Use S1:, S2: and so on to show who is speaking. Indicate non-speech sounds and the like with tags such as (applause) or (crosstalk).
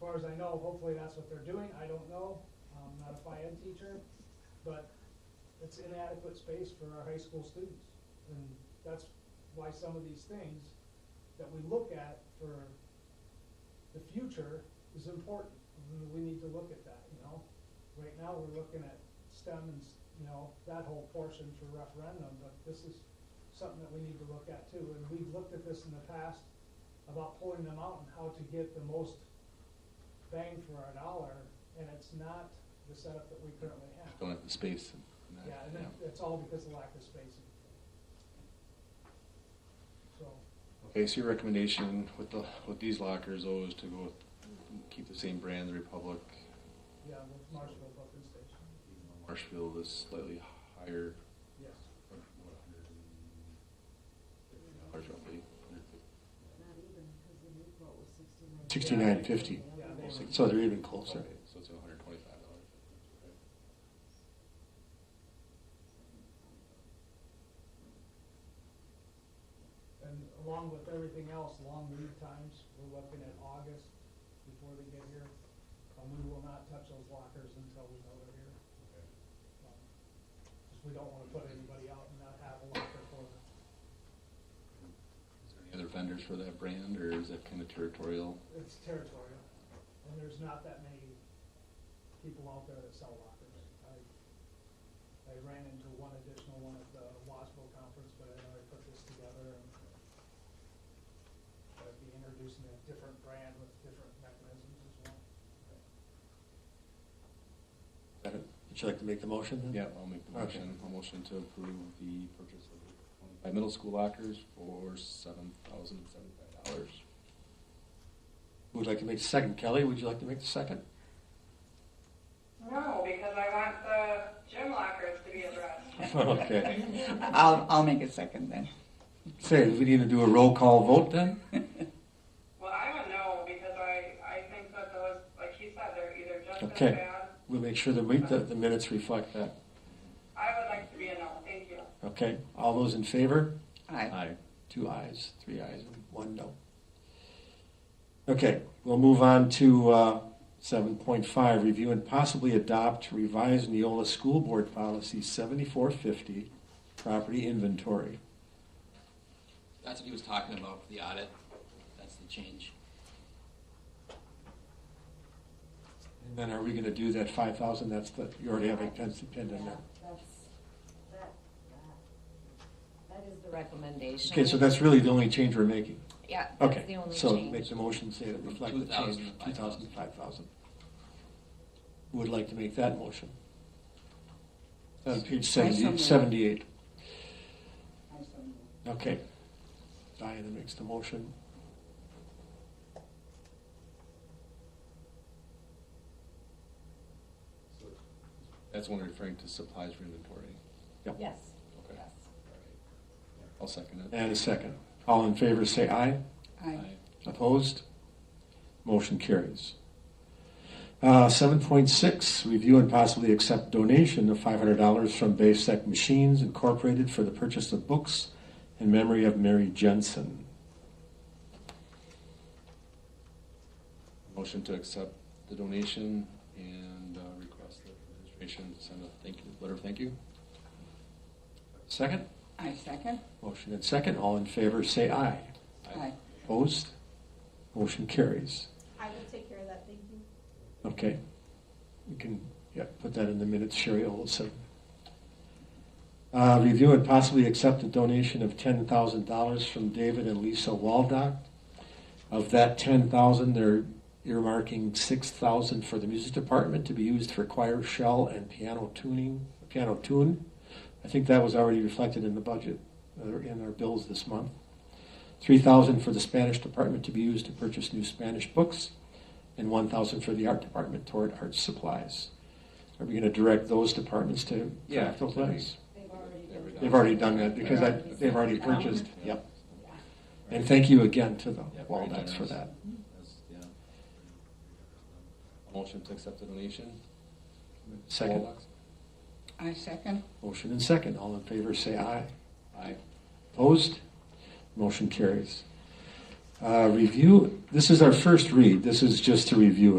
S1: far as I know, hopefully that's what they're doing, I don't know, I'm not a Phi Ed teacher, but it's inadequate space for our high school students. And that's why some of these things that we look at for the future is important. And We need to look at that, you know? Right now, we're looking at STEM and, s- you know, that whole portion for referendum, but this is something that we need to look at too. And we've looked at this in the past about pulling them out and how to get the most bang for our dollar, and it's not the setup that we currently have.
S2: Don't have the space. and- and that,
S1: Yeah, and that- that's all because of lack of spacing. So,
S2: Okay, so your recommendation with the, with these lockers though is to go with, keep the same brand, the Republic,
S1: yeah, with Marshville Buffin Station,
S2: Marshfield is slightly higher,
S1: yes.
S2: what, $150 roughly.
S3: Not even, because the new quote was sixty-nine.
S4: Sixty-nine fifty,
S1: Yeah, they were-
S4: so they're even closer.
S2: Okay, So it's hundred twenty-five dollars.
S1: And along with everything else, long lead times, we're looking at August before they get here. And we will not touch those lockers until we know they're here. Because we don't want to put anybody out and not have a locker for them.
S2: Is there any other vendors for that brand or is that kind of territorial?
S1: It's territorial, and there's not that many people out there that sell lockers. I, I ran into one additional one at the Wasco conference, but I know I put this together and I'd be introducing a different brand with different mechanisms as well.
S4: Would you like to make the motion then?
S2: Yeah, I'll make the
S4: Okay.
S2: motion, I'll motion to approve the purchase of twenty-five middle school lockers for seven thousand seventy-five dollars.
S4: Who would like to make the second? Kelly, would you like to make the second? (laughs)
S5: No, because I want the gym lockers to be addressed.
S4: Okay.
S6: I'll, I'll make a second then.
S4: Say, do we need to do a roll call vote then?
S5: Well, I don't know, because I, I think that those, like he said, they're either just
S4: Okay.
S5: as bad.
S4: We'll make sure that we, that the minutes reflect that.
S5: I would like to be a no, thank you.
S4: Okay, all those in favor?
S6: Aye.
S4: Two ayes, three ayes, and one no. Okay, we'll move on to uh, 7.5, review and possibly adopt revised Neola School Board Policy 7450, property inventory.
S7: That's what he was talking about for the audit. That's the change.
S4: And then are we going to do that 5,000, that's the, you already have a pen pinned in there.
S3: That's, that, that, that is the recommendation.
S4: Okay, so that's really the only change we're making.
S8: Yeah,
S4: Okay,
S8: that's the only
S4: so
S8: change.
S4: make the motion say that reflect the change,
S7: 2,000 to
S4: 2,000 to 5,000. Who Would like to make that motion? On page
S6: I so
S4: 70
S6: moved.
S4: 78.
S6: I so move.
S4: Okay. Diana makes the motion.
S2: That's one referring to supplies for inventory.
S8: Yes,
S2: Okay.
S8: yes.
S2: I'll second it.
S4: And a second. All in favor, say aye.
S6: Aye.
S4: Opposed? Motion carries. Uh, 7.6, review and possibly accept donation of $500 from Basec Machines Incorporated for the purchase of books in memory of Mary Jensen.
S2: Motion to accept the donation and uh, request the administration to send a thank you, letter of thank you.
S4: Second?
S6: I second.
S4: Motion and second. All in favor, say aye.
S6: Aye.
S4: Opposed? Motion carries.
S9: I will take care of that, thank you.
S4: Okay. You can, yeah, put that in the minutes, Sherry Olson. Uh, review and possibly accept a donation of ten thousand dollars from David and Lisa Waldock. Of that ten thousand, they're earmarking six thousand for the music department to be used for choir shell and piano tuning, piano tune. I think that was already reflected in the budget, uh, in our bills this month. Three thousand for the Spanish department to be used to purchase new Spanish books and one thousand for the art department toward art supplies. Are we gonna direct those departments to
S2: Yeah,
S4: collect those
S2: that'd be-
S4: letters?
S3: They've already
S2: They've
S3: been.
S2: already
S4: They've already done that because I, they've already purchased, yep. And thank you again to the
S2: Yeah, very
S4: Waldots for
S2: generous.
S4: that.
S2: That's- yeah. Motion to accept the donation.
S4: Second,
S2: Wallbox?
S6: I second.
S4: motion and second, all in favor say aye.
S2: Aye.
S4: Opposed? Motion carries. Uh, Review, this is our first read, this is just to review